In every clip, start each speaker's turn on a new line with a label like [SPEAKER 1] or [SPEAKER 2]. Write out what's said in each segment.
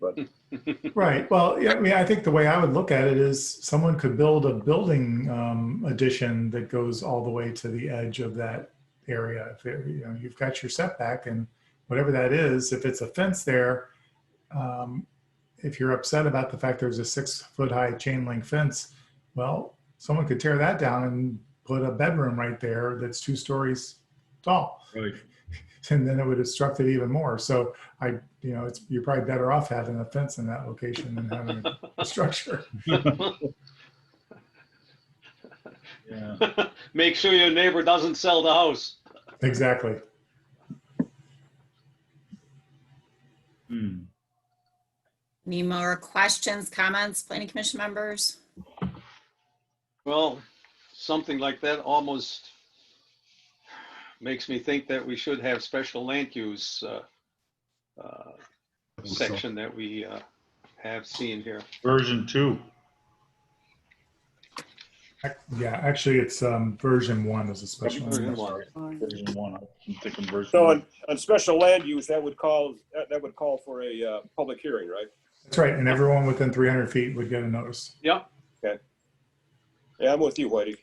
[SPEAKER 1] but
[SPEAKER 2] Right. Well, yeah, I mean, I think the way I would look at it is someone could build a building um, addition that goes all the way to the edge of that area. If it, you know, you've got your setback and whatever that is, if it's a fence there, um, if you're upset about the fact there's a six foot high chain link fence, well, someone could tear that down and put a bedroom right there that's two stories tall
[SPEAKER 1] right.
[SPEAKER 2] and then it would obstruct it even more. So I, you know, it's, you're probably better off having a fence in that location than having a structure.
[SPEAKER 1] Yeah.
[SPEAKER 3] Make sure your neighbor doesn't sell the house.
[SPEAKER 2] Exactly.
[SPEAKER 1] Hmm.
[SPEAKER 4] Any more questions, comments, planning commission members?
[SPEAKER 3] Well, something like that almost makes me think that we should have special land use uh, uh, section that we uh, have seen here.
[SPEAKER 1] Version two.
[SPEAKER 2] Ac- Yeah, actually, it's um, version one is a special.
[SPEAKER 3] Version one.
[SPEAKER 1] Version one. I'm thinking version
[SPEAKER 5] So
[SPEAKER 1] one.
[SPEAKER 5] on, on special land use, that would call, that that would call for a uh, public hearing, right?
[SPEAKER 2] That's right, and everyone within 300 feet would get a notice.
[SPEAKER 5] Yeah, I'm with you, Whitey.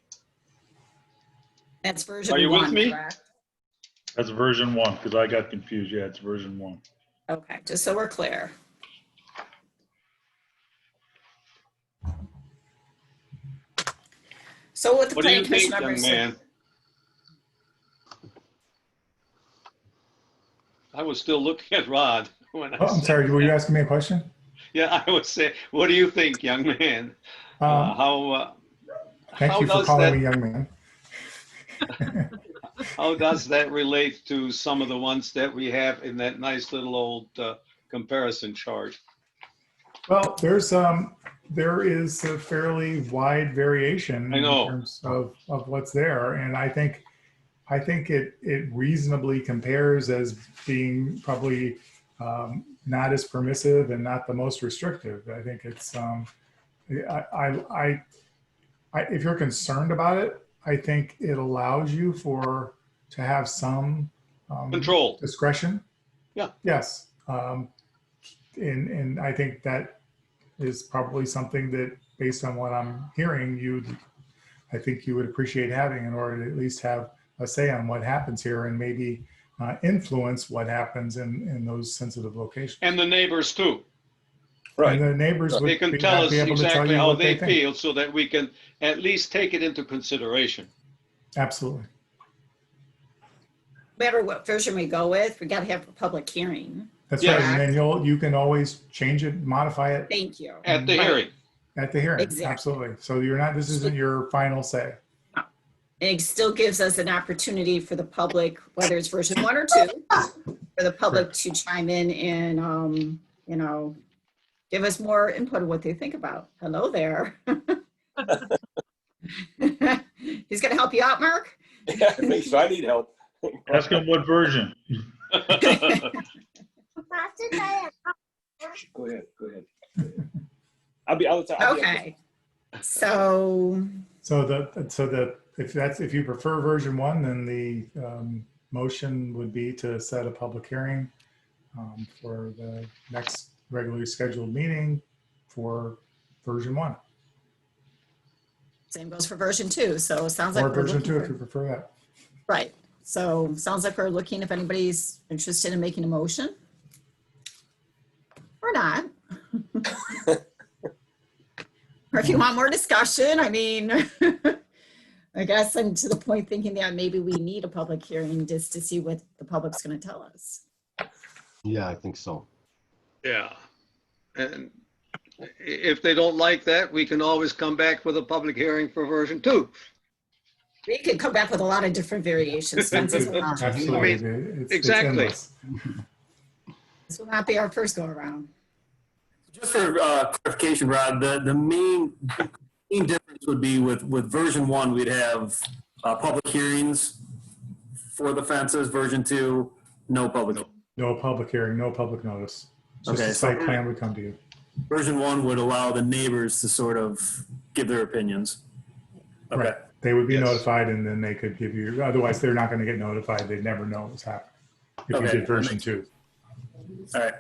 [SPEAKER 4] That's version
[SPEAKER 3] Are you with
[SPEAKER 4] one,
[SPEAKER 3] me?
[SPEAKER 4] correct?
[SPEAKER 1] That's version one, because I got confused. Yeah, it's version one.
[SPEAKER 4] Okay, just so we're clear. So what the
[SPEAKER 3] What do you think,
[SPEAKER 4] planning commission
[SPEAKER 3] young man?
[SPEAKER 4] members.
[SPEAKER 3] I was still looking at Rod when I
[SPEAKER 2] Oh, I'm
[SPEAKER 3] said,
[SPEAKER 2] sorry, were you asking me a question?
[SPEAKER 3] yeah, I would say, what do you think, young man? Uh,
[SPEAKER 2] Um,
[SPEAKER 3] How, uh,
[SPEAKER 2] Thank
[SPEAKER 3] how
[SPEAKER 2] you for
[SPEAKER 3] does that-
[SPEAKER 2] calling me young man.
[SPEAKER 3] How does that relate to some of the ones that we have in that nice little old uh, comparison chart?
[SPEAKER 2] Well, there's, um, there is a fairly wide variation.
[SPEAKER 3] I know.
[SPEAKER 2] In terms of, of what's there, and I think, I think it, it reasonably compares as being probably, um, not as permissive and not the most restrictive. I think it's, um, I, I, I, I, if you're concerned about it, I think it allows you for, to have some. um,
[SPEAKER 3] Control.
[SPEAKER 2] discretion.
[SPEAKER 3] Yeah.
[SPEAKER 2] Yes. Um, and, and I think that is probably something that, based on what I'm hearing, you, I think you would appreciate having in order to at least have a say on what happens here and maybe uh, influence what happens in, in those sensitive locations.
[SPEAKER 3] And the neighbors too.
[SPEAKER 2] And the neighbors
[SPEAKER 3] They
[SPEAKER 2] would
[SPEAKER 3] can
[SPEAKER 2] be
[SPEAKER 3] tell
[SPEAKER 2] not
[SPEAKER 3] us
[SPEAKER 2] be able to tell
[SPEAKER 3] exactly
[SPEAKER 2] you
[SPEAKER 3] how
[SPEAKER 2] what
[SPEAKER 3] they
[SPEAKER 2] they think.
[SPEAKER 3] feel so that we can at least take it into consideration.
[SPEAKER 2] Absolutely.
[SPEAKER 4] No Matter what version we go with, we gotta have a public hearing.
[SPEAKER 2] That's
[SPEAKER 3] Yeah.
[SPEAKER 2] right. And then you'll, you can always change it, modify it
[SPEAKER 4] Thank you.
[SPEAKER 3] At the
[SPEAKER 4] Right.
[SPEAKER 3] hearing,
[SPEAKER 2] at the hearing.
[SPEAKER 4] Exactly.
[SPEAKER 2] Absolutely. So you're not, this isn't your final say.
[SPEAKER 4] It still gives us an opportunity for the public, whether it's version one or two, for the public to chime in and, um, you know, give us more input on what they think about. Hello there. He's gonna help you out, Mark?
[SPEAKER 5] Yeah, thanks. I need help.
[SPEAKER 1] Ask him what version.
[SPEAKER 5] Go ahead, go ahead. I'll be, I'll. I'll be-
[SPEAKER 4] Okay. So,
[SPEAKER 2] So the, so the, if that's, if you prefer version one, then the um, motion would be to set a public hearing um, for the next regularly scheduled meeting for version one,
[SPEAKER 4] same goes for version two, so it sounds like.
[SPEAKER 2] or
[SPEAKER 4] we're
[SPEAKER 2] version
[SPEAKER 4] looking
[SPEAKER 2] two
[SPEAKER 4] for-
[SPEAKER 2] if you prefer that.
[SPEAKER 4] Right, so sounds like we're looking if anybody's interested in making a motion. Or not. Or if you want more discussion, I mean, I guess I'm to the point thinking that maybe we need a public hearing just to see what the public's gonna tell us.
[SPEAKER 6] Yeah, I think so.
[SPEAKER 3] yeah. And i- if they don't like that, we can always come back with a public hearing for version two.
[SPEAKER 4] We could come back with a lot of different variations. since this will not-
[SPEAKER 2] Absolutely.
[SPEAKER 3] I mean,
[SPEAKER 2] It- it's- it's
[SPEAKER 3] exactly.
[SPEAKER 2] endless.
[SPEAKER 4] This will not be our first go around.
[SPEAKER 7] Just for uh, clarification, Rod, the, the main, main difference would be with, with version one, we'd have uh, public hearings for the fences, version two, no public.
[SPEAKER 2] No public hearing, no public notice. It's Just
[SPEAKER 7] Okay,
[SPEAKER 2] a
[SPEAKER 7] so-
[SPEAKER 2] site plan would come to you.
[SPEAKER 7] Version one would allow the neighbors to sort of give their opinions. Okay,
[SPEAKER 2] Right. They would be
[SPEAKER 3] Yes.
[SPEAKER 2] notified and then they could give you, otherwise they're not going to get notified. They'd never know what's happening. If you
[SPEAKER 7] Okay.
[SPEAKER 2] did version two.
[SPEAKER 7] all right.